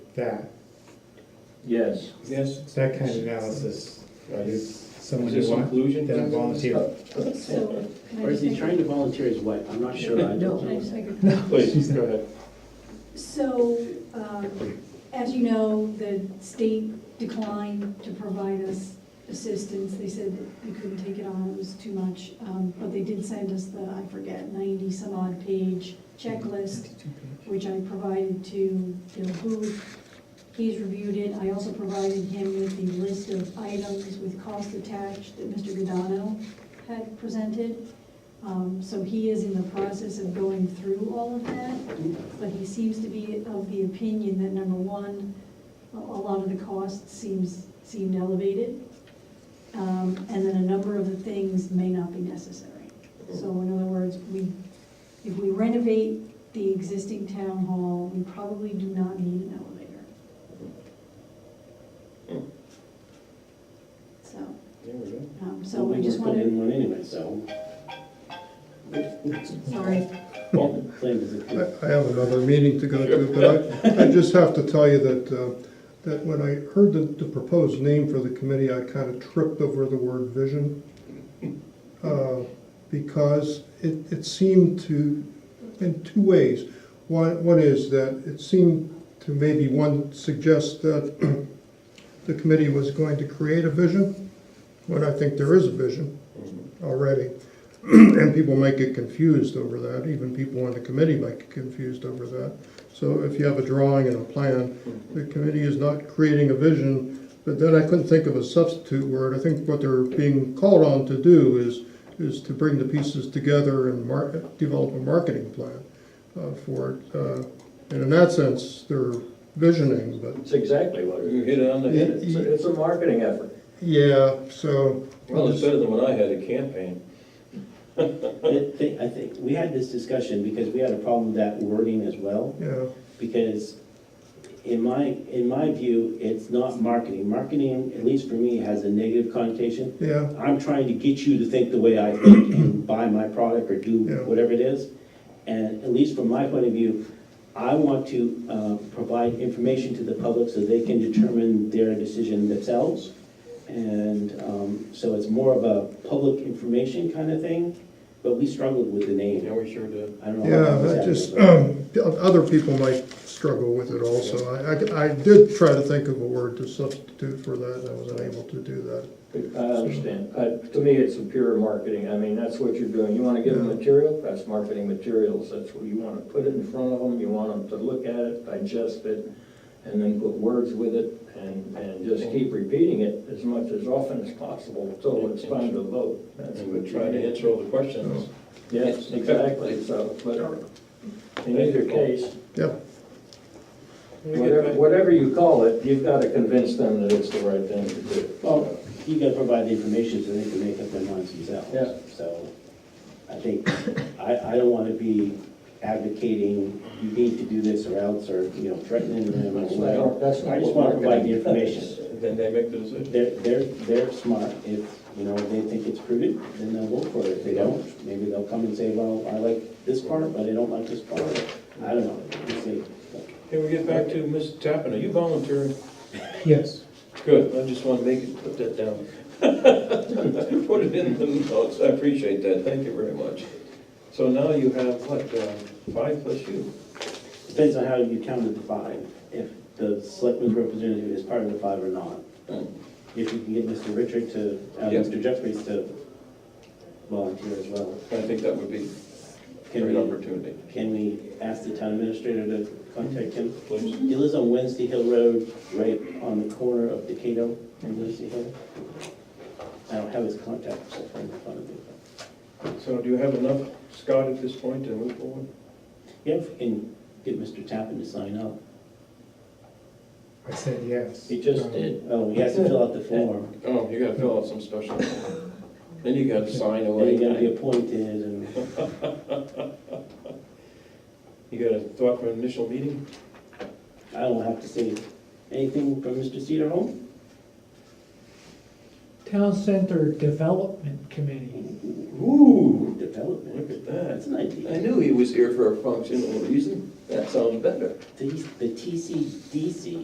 that, Yes. Yes. that kind of analysis, is someone Is you there some want, collusion? then volunteer. So, can Or I is just he make, Oh, trying to volunteer his wife? I'm not sure. I can I don't just know. make a comment? Please, go ahead. So, um, as you know, the state declined to provide us assistance. They said that they couldn't take it on, it was too much. Um, But they did send us the, I forget, 90-some-odd page checklist, which I provided to Bill Booth. He's reviewed it. I also provided him with the list of items with cost attached that Mr. Godano had presented. Um, So he is in the process of going through all of that. But he seems to be of the opinion that, number one, a a lot of the costs seems, seemed elevated. Um, And then a number of the things may not be necessary. So in other words, we, if we renovate the existing town hall, we probably do not need an elevator. Hmm. So, There we go. um, Well, so we I just worked on wanted, everyone anyway, so. sorry, Well, blame is I a- I have another meeting to go to, but I, I just have to tell you that, uh, that when I heard the, the proposed name for the committee, I kind of tripped over the word vision. uh, Because it, it seemed to, in two ways. One, one is that it seemed to maybe one suggest that the committee was going to create a vision, when I think there is a vision already. And people might get confused over that, even people on the committee might get confused over that. So if you have a drawing and a plan, the committee is not creating a vision, but then I couldn't think of a substitute word. I think what they're being called on to do is, is to bring the pieces together and market, develop a marketing plan uh, for it. Uh, And in that sense, they're visioning, but It's exactly what it is. You hit it on the Yeah, head. It's a- it's a marketing effort. yeah, so. Well, it's better than when I had a campaign. I think, I think, we had this discussion because we had a problem with that wording as well. Yeah, Because in my, in my view, it's not marketing. Marketing, at least for me, has a negative connotation. yeah. I'm trying to get you to think the way I think and buy my product or do Yeah. whatever it is. And at least from my point of view, I want to uh, provide information to the public so they can determine their decision themselves. And um, so it's more of a public information kind of thing, but we struggled with the Yeah, name. we sure did. I don't know. how Yeah, that was that happening, just, but- um, other people might struggle with it also. I, I- I did try to think of a word to substitute for that, and I was unable to do that. I understand. Uh, To me, it's a pure marketing. I mean, that's what you're doing. You want to give them material, that's marketing materials. That's what you want to put it in front of them. You want them to look at it, digest it, and then put words with it and, and just keep repeating it as much as often as possible until it's time to vote. That's And what we you tried to do. answer all the questions. Yes, exactly. So, but in either case, Yeah, Whatever, whatever you call it, you've got to convince them that it's the right thing to do. Oh, Well, you gotta provide the information so they can make up their minds themselves. Yeah. So I think, I, I don't wanna be advocating, you need to do this or else, or, you know, threatening them or I whatever. don't- that's not I just what wanna we're provide the gonna- information. Then they make the decision. They're, they're, they're smart. If, you know, they think it's prudent, then they'll vote for it. If they don't, maybe they'll come and say, well, I like this part, but I don't like this part. I don't know. We'll see. Can we get back to Ms. Tappan? Are you volunteering? yes. Good, I just want to make it, put that down. Put it in the notes, I appreciate that, thank you very much. So now you have, what, uh, five plus you? Depends on how you counted the five, if the selectman's representative is part of the five or not. If you can get Mr. Richard to, uh, Yeah. Mr. Jeffries to volunteer as well. I think that would be a Can great we, opportunity, can we ask the town administrator to contact him? please. He lives on Wednesday Hill Road, right on the corner of Decato and Wednesday Hill. I don't have his contact, so I'm in front of me. So do you have enough, Scott, at this point to move forward? Yeah, if we can get Mr. Tappan to sign up. I said yes. He just Um, did. Oh, he has to fill out the form, Oh, you gotta fill out some special, then you gotta sign and away. he's gonna be appointed and. You got a thought for an initial meeting? I don't have to say anything from Mr. Cedarholm. Town Center Development Committee. Ooh, Development, look at that. that's an I idea. knew he was here for a functional reason. That sounds better. The the TCDC